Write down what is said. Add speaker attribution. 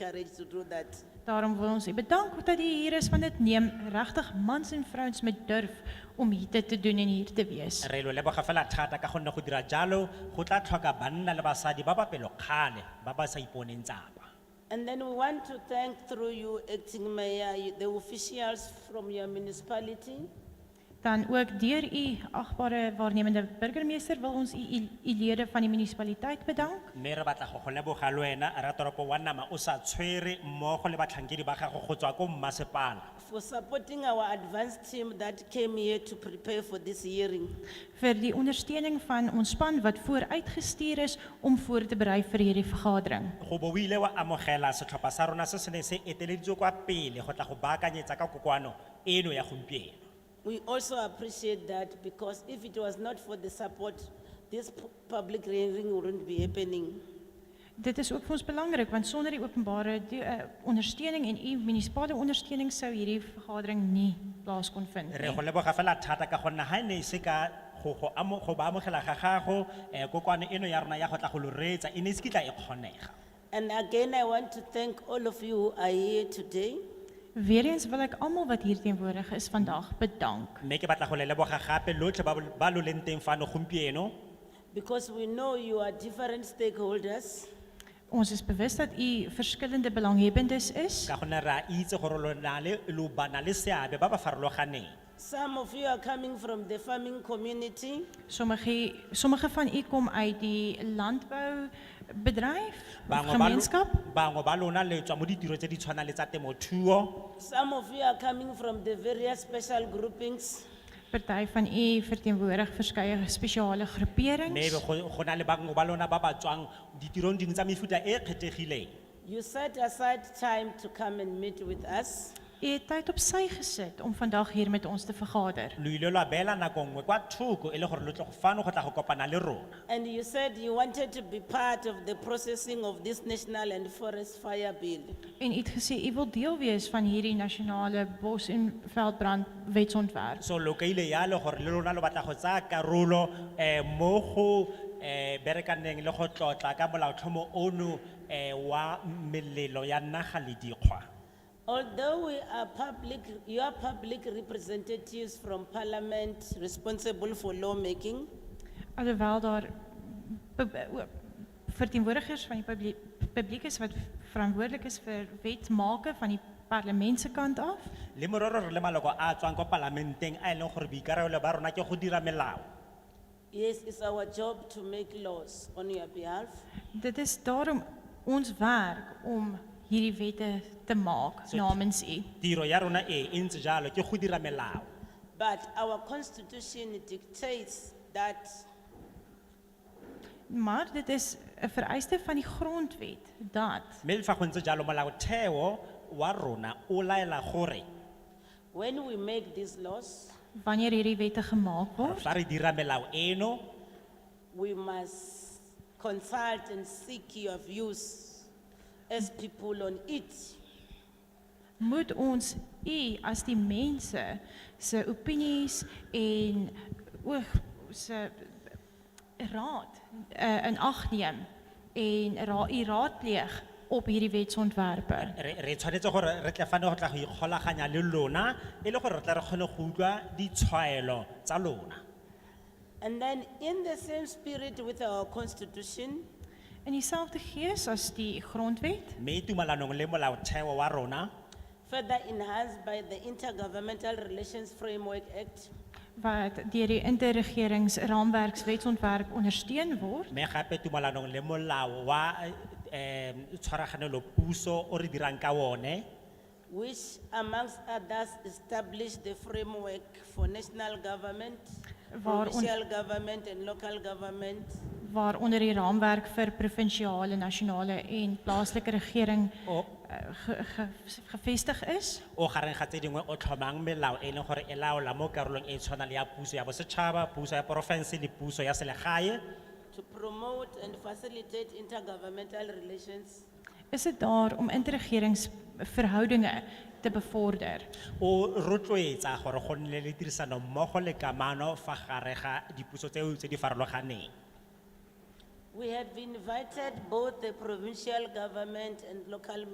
Speaker 1: courage to do that.
Speaker 2: Daarom wil ons u bedank dat u hier is want dit neem regtig mans en vrouens met durf om hier dit te doen en hier te wees.
Speaker 3: Re lo leboga fela thata ka gonne go dira jalo go tla tlhoka banna le basadi ba ba pelokgale ba ba sa iponeng tsapa.
Speaker 1: And then we want to thank through you, acting mayor, you- the officials from your municipality.
Speaker 2: Dan ook deur u agbare waarnemende burgemeester wil ons u u- u lede van die munisipaliteit bedank.
Speaker 3: Mme re batla go go leboga le wena ra toropo wa Nama o sa tshwere mmogo le batlhankedi ba gago go tswa ko mmasepala.
Speaker 1: for supporting our advanced team that came here to prepare for this hearing.
Speaker 2: vir die ondersteuning van ons span wat vooruitgestuur is om voor te berei vir hierdie vergadering.
Speaker 3: Go bo o ile wa amogela setlhopha sa rona se se neng se eteleditswe kwa pele go tla go baakanyetsa ka kokoano eno ya gompieno.
Speaker 1: We also appreciate that because if it was not for the support, this pu- public hearing wouldn't be happening.
Speaker 2: Dit is ook vir ons belangrik want sonder die openbare die, uh, ondersteuning en u munisipale ondersteuning sou hierdie vergadering nie plaas kon vind
Speaker 3: Re go
Speaker 2: nie.
Speaker 3: leboga fela thata ka gonne ha e ne e se ka go go amo go ba amogela ga gago eh kokoano eno ya rona ya go tla go loretsa e ne e se kitla e kgonega.
Speaker 1: And again, I want to thank all of you who are here today.
Speaker 2: Weereens wil ek almal wat hier teenwoordig is vandag bedank
Speaker 3: Mme ke batla go le leboga gape lotlhe ba bo- ba lo leng teng fano gompieno.
Speaker 1: Because we know you are different stakeholders,
Speaker 2: Ons is bewus dat u verskillende belanghebbendes is.
Speaker 3: Ka gonne re a itse gore lo na le lo bana le seabe ba ba farologaneng.
Speaker 1: some of you are coming from the farming community,
Speaker 2: Sommige sommige van u kom uit die landboubedryf, of
Speaker 3: Bangwe ba lo-
Speaker 2: gemeenskap.
Speaker 3: Bangwe ba lona le tswa mo ditiro tse di tshwana le tsa temothuo.
Speaker 1: some of you are coming from the various special groupings.
Speaker 2: Party van u verteenwoordig verskeie spesiale
Speaker 3: Mme
Speaker 2: groeperings.
Speaker 3: be go go na le bangwe ba lona ba ba tswang ditirong dingwe tsa mefuta e e kgethegileng.
Speaker 1: You set aside time to come and meet with us.
Speaker 2: U het tyd op sy gesit om vandag hier met ons te vergader.
Speaker 3: Lo ile lwa beela nako nngwe kwa thoko e le gore lo tle go fano go tla go kopana le rona.
Speaker 1: And you said you wanted to be part of the processing of this national and forest fire bill.
Speaker 2: En u het gesê u wil deel wees van hierdie nasionale bos en veldbrand wetsontwerp.
Speaker 3: So lo kaile yalo gore le lona lo batla go tsaya karolo eh mo go eh berekaneng le go tlotla ka molaotlhomo ono eh wa melelo ya naga le dikgwa.
Speaker 1: Although we are public, you are public representatives from parliament responsible for lawmaking,
Speaker 2: Alhoewel daar be- be- o- verteenwoordigers van die publiek, publiek is wat verantwoordelik is vir wetmaking van die parlement se kant af,
Speaker 3: Le mororo re le maloko a tswang kwa palamenteng a e leng gore boikarabelo ba rona ke go dira melao.
Speaker 1: yes, it's our job to make laws on your behalf.
Speaker 2: dit is daarom ons werk om hierdie wette te maak
Speaker 3: So-
Speaker 2: namens u.
Speaker 3: Tiro ya rona e e ntse jalo ke go dira melao.
Speaker 1: But our constitution dictates that
Speaker 2: Maar dit is 'n vereiste van die grondwet dat
Speaker 3: Mme le fa go ntse jalo molaotheo wa rona o laela gore
Speaker 1: when we make these laws,
Speaker 2: wanneer hierdie wette gemaak word,
Speaker 3: fa re dira melao eno
Speaker 1: we must consult and seek your views as people on it.
Speaker 2: moet ons u as die mense se opinies en oog se raad uh, in ag neem en ra u raadpleeg op hierdie wetsontwerpe.
Speaker 3: re re tshwanetse gore re tle fane go tla go ikgolaganya le lona e le gore re tla re kgone go utlwa ditshwaelo tsa lona.
Speaker 1: And then in the same spirit with our constitution,
Speaker 2: In dieselfde gees as die grondwet
Speaker 3: Mme tumalanong le molaotheo wa rona
Speaker 1: further enhanced by the Intergovernmental Relations Framework Act,
Speaker 2: wat deur die interregeringsraamwerkswetsontwerp ondersteun word
Speaker 3: mme gape tumalanong le molao wa eh tshwaraganelo puso o re dirang ka one
Speaker 1: which amongst others established the framework for national government,
Speaker 2: Waar on-
Speaker 1: provincial government and local government,
Speaker 2: waaronder die raamwerk vir provinsiale, nasionale en plaaslike regering
Speaker 3: o
Speaker 2: eh, ge, ge, gevestig is
Speaker 3: o gareng ga tse dingwe o tlhomang melao e leng gore e laola mo karolong e e tshwanang le ya puso ya bosetšhaba puso ya porofense le puso ya selegae
Speaker 1: to promote and facilitate intergovernmental relations,
Speaker 2: is dit daar om interregeringsverhoudinge te bevorder
Speaker 3: o rotloetsa gore go nne le tirisanommogo le kamano fa gare ga dipuso tseo tse di farologaneng
Speaker 1: We have invited both the provincial government and local